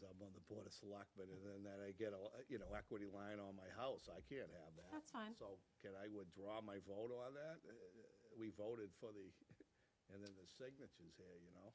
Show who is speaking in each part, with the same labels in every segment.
Speaker 1: Board of Selectmen, and then that I get a, you know, equity line on my house, I can't have that.
Speaker 2: That's fine.
Speaker 1: So can I withdraw my vote on that? Uh, We voted for the, and then the signatures here, you know?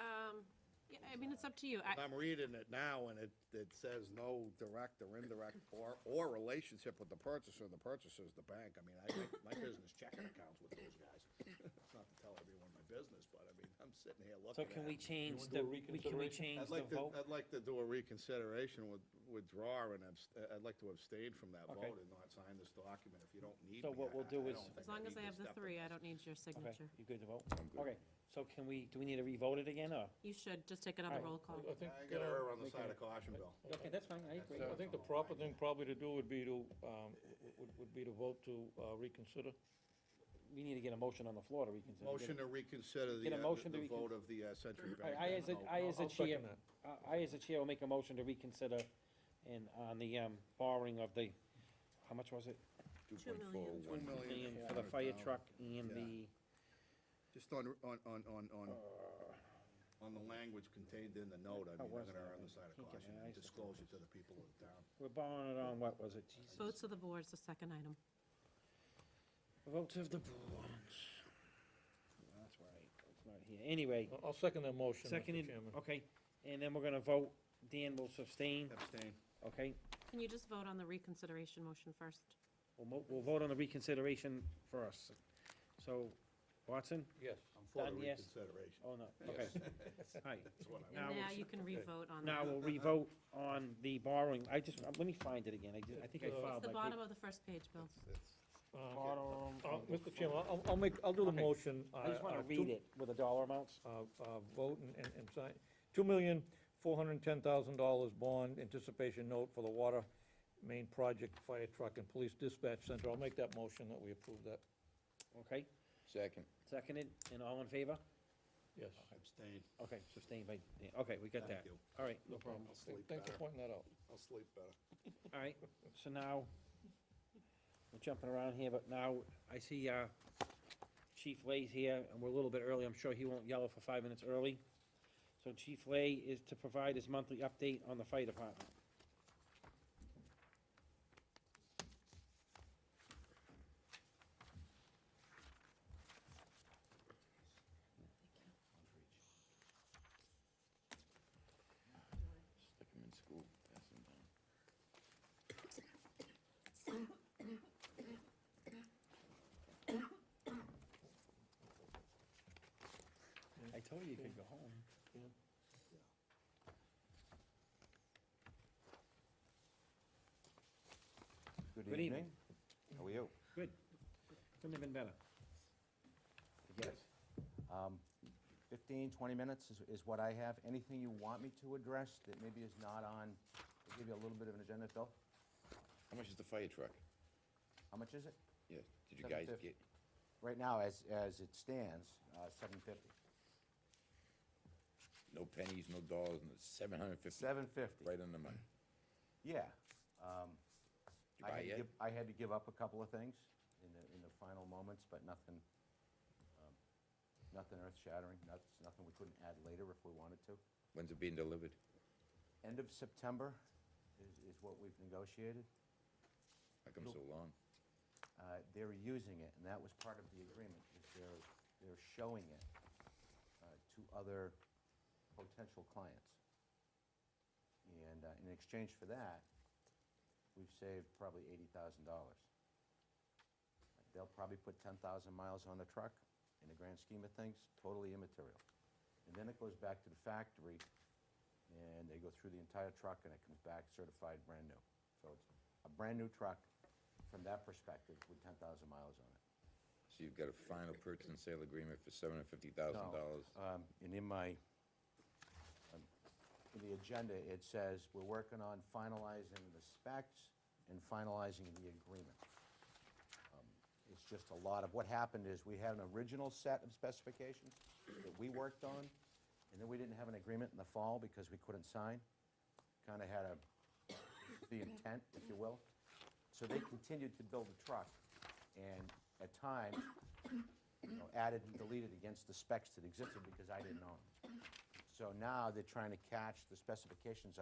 Speaker 2: Um, Yeah, I mean, it's up to you. I-
Speaker 1: I'm reading it now, and it, it says no direct or indirect or, or relationship with the purchaser, and the purchaser's the bank. I mean, I make my business checking accounts with those guys. It's Not to tell everyone my business, but I mean, I'm sitting here looking
Speaker 3: So
Speaker 1: at.
Speaker 3: can we
Speaker 1: it.
Speaker 3: change
Speaker 4: wanna
Speaker 3: the,
Speaker 4: do a
Speaker 3: we- can we
Speaker 4: reconsideration?
Speaker 3: change
Speaker 1: I'd
Speaker 3: the
Speaker 1: like to,
Speaker 3: vote?
Speaker 1: I'd like to do a reconsideration with, withdraw, and abst- uh, I'd like to abstain from that
Speaker 3: Okay.
Speaker 1: vote and not sign this document if you don't need me.
Speaker 3: So what
Speaker 1: I-
Speaker 3: we'll
Speaker 1: I-
Speaker 3: do
Speaker 1: I
Speaker 3: is-
Speaker 1: don't think
Speaker 2: As long as
Speaker 1: need
Speaker 2: I
Speaker 1: to
Speaker 2: have the
Speaker 1: step in
Speaker 2: three, I
Speaker 1: this.
Speaker 2: don't need your
Speaker 3: Okay,
Speaker 2: signature.
Speaker 3: you good to vote? Okay, so can we, do we need to re-vote it again, or?
Speaker 2: You should, just take another
Speaker 3: Alright.
Speaker 2: roll call.
Speaker 4: I think,
Speaker 1: I gotta
Speaker 4: uh,
Speaker 1: err on the side of caution, Bill.
Speaker 3: Okay, that's fine, I agree.
Speaker 4: I think the proper thing probably to do would be to, um, would, would be to vote to uh, reconsider.
Speaker 3: We need to get a motion on the floor to reconsider.
Speaker 1: Motion to reconsider the,
Speaker 3: Get a
Speaker 1: uh,
Speaker 3: motion to
Speaker 1: the
Speaker 3: recon-
Speaker 1: vote of the uh, Century
Speaker 3: All right,
Speaker 1: Bank.
Speaker 3: I, as a,
Speaker 1: vote.
Speaker 3: I, as a
Speaker 4: I'll second
Speaker 3: chair,
Speaker 4: that.
Speaker 3: I- I, as a chair, will make a motion to reconsider and on the, um, borrowing of the, how much was it?
Speaker 2: Two million.
Speaker 1: Two million
Speaker 3: Million
Speaker 1: four
Speaker 3: for the
Speaker 1: hundred
Speaker 3: fire
Speaker 1: thousand.
Speaker 3: truck and
Speaker 1: Yeah.
Speaker 3: the,
Speaker 1: Just on, on, on, on, on, on the language contained in the note, I
Speaker 3: Uh,
Speaker 1: mean, I'm
Speaker 3: How was
Speaker 1: gonna
Speaker 3: that?
Speaker 1: err on
Speaker 3: I
Speaker 1: the side of
Speaker 3: can't
Speaker 1: caution
Speaker 3: get my
Speaker 1: and
Speaker 3: eyes to
Speaker 1: disclose it to the people of the town.
Speaker 3: we're borrowing it on, what was it, Jesus?
Speaker 2: Votes of the board's the second item.
Speaker 3: Vote of the board. That's right, it's not here, anyway,
Speaker 4: I'll- I'll second that motion, Mr.
Speaker 3: seconded,
Speaker 4: Chairman.
Speaker 3: okay, and then we're gonna vote, Dan will sustain,
Speaker 1: Abstain.
Speaker 3: okay?
Speaker 2: Can you just vote on the reconsideration motion first?
Speaker 3: We'll, mo- we'll vote on the reconsideration first. So, Watson?
Speaker 4: Yes.
Speaker 1: I'm for the
Speaker 3: Done, yes.
Speaker 1: reconsideration.
Speaker 3: Oh, no, okay. All right,
Speaker 1: That's what I
Speaker 3: Now
Speaker 2: And now
Speaker 3: we-
Speaker 2: you can re-vote on
Speaker 3: now
Speaker 2: that.
Speaker 3: we'll revote on the borrowing, I just, uh, let me find it again, I did- I think I
Speaker 4: It's the
Speaker 3: filed
Speaker 2: It's the
Speaker 3: uh, my
Speaker 2: bottom
Speaker 3: paper.
Speaker 2: of the first page, Bill.
Speaker 3: Bottom
Speaker 4: Uh,
Speaker 3: of the
Speaker 4: Mr. Chairman, I'll, I'll make, I'll do the
Speaker 3: Okay.
Speaker 4: motion.
Speaker 3: Oh, I just
Speaker 4: uh,
Speaker 3: wanna
Speaker 4: uh,
Speaker 3: read
Speaker 4: two-
Speaker 3: it with the dollar amounts.
Speaker 4: uh, uh, vote and- and, and sign, two million, four hundred and ten thousand dollars bond anticipation note for the water main project, fire truck and police dispatch center. I'll make that motion that we approve that.
Speaker 3: Okay,
Speaker 5: Second.
Speaker 3: seconded, and all in favor?
Speaker 4: Yes.
Speaker 1: Abstain.
Speaker 3: Okay, sustained by, Dan. okay, we got
Speaker 1: Thank
Speaker 3: that.
Speaker 1: you.
Speaker 3: All right,
Speaker 4: No problem.
Speaker 1: I'll sleep
Speaker 4: Thanks for
Speaker 1: better.
Speaker 4: pointing that out.
Speaker 1: I'll sleep better.
Speaker 3: all right, so now, we're jumping around here, but now I see, uh, Chief Lay's here, and we're a little bit early, I'm sure he won't yell for five minutes early. So Chief Lay is to provide his monthly update on the fire department.
Speaker 5: Stick him in school, pass him down.
Speaker 3: I told you you could go home. Good evening.
Speaker 5: How are you?
Speaker 3: Good. Couldn't have been better.
Speaker 5: Yes. Um, 15, 20 minutes is- is what I have. Anything you want me to address that maybe is not on, I'll give you a little bit of an agenda, Phil.
Speaker 6: How much is the fire truck?
Speaker 5: How much is it?
Speaker 6: Yeah, did you guys
Speaker 5: 750.
Speaker 6: get,
Speaker 5: Right now, as, as it stands, uh, 750.
Speaker 6: no pennies, no dollars, no, seven hundred and fifty?
Speaker 5: 750.
Speaker 6: Right on the money.
Speaker 5: Yeah. um,
Speaker 6: Did you
Speaker 5: I
Speaker 6: buy
Speaker 5: had to
Speaker 6: yet?
Speaker 5: give- I had to give up a couple of things in the, in the final moments, but nothing, um, nothing earth-shattering, not- nothing we couldn't add later if we wanted to.
Speaker 6: When's it being delivered?
Speaker 5: End of September is, is what we've negotiated.
Speaker 6: How come
Speaker 5: No.
Speaker 6: so long?
Speaker 5: Uh, They're using it, and that was part of the agreement, is they're, they're showing it uh, to other potential clients. And uh, in exchange for that, we've saved probably eighty thousand dollars. They'll probably put ten thousand miles on the truck, in the grand scheme of things, totally immaterial. And then it goes back to the factory, and they go through the entire truck, and it comes back certified brand new. So it's a brand-new truck from that perspective with ten thousand miles on it.
Speaker 6: So you've got a final purchase and sale agreement for seven hundred and fifty thousand dollars?
Speaker 5: No, um, And in my, um, in the agenda, it says, we're working on finalizing the specs and finalizing the agreement. Um, It's just a lot of, what happened is, we had an original set of specifications that we worked on, and then we didn't have an agreement in the fall because we couldn't sign. Kind of had a, the intent, if you will. So they continued to build the truck, and at times, you know, added and deleted against the specs that existed because I didn't own them. So now they're trying to catch the specifications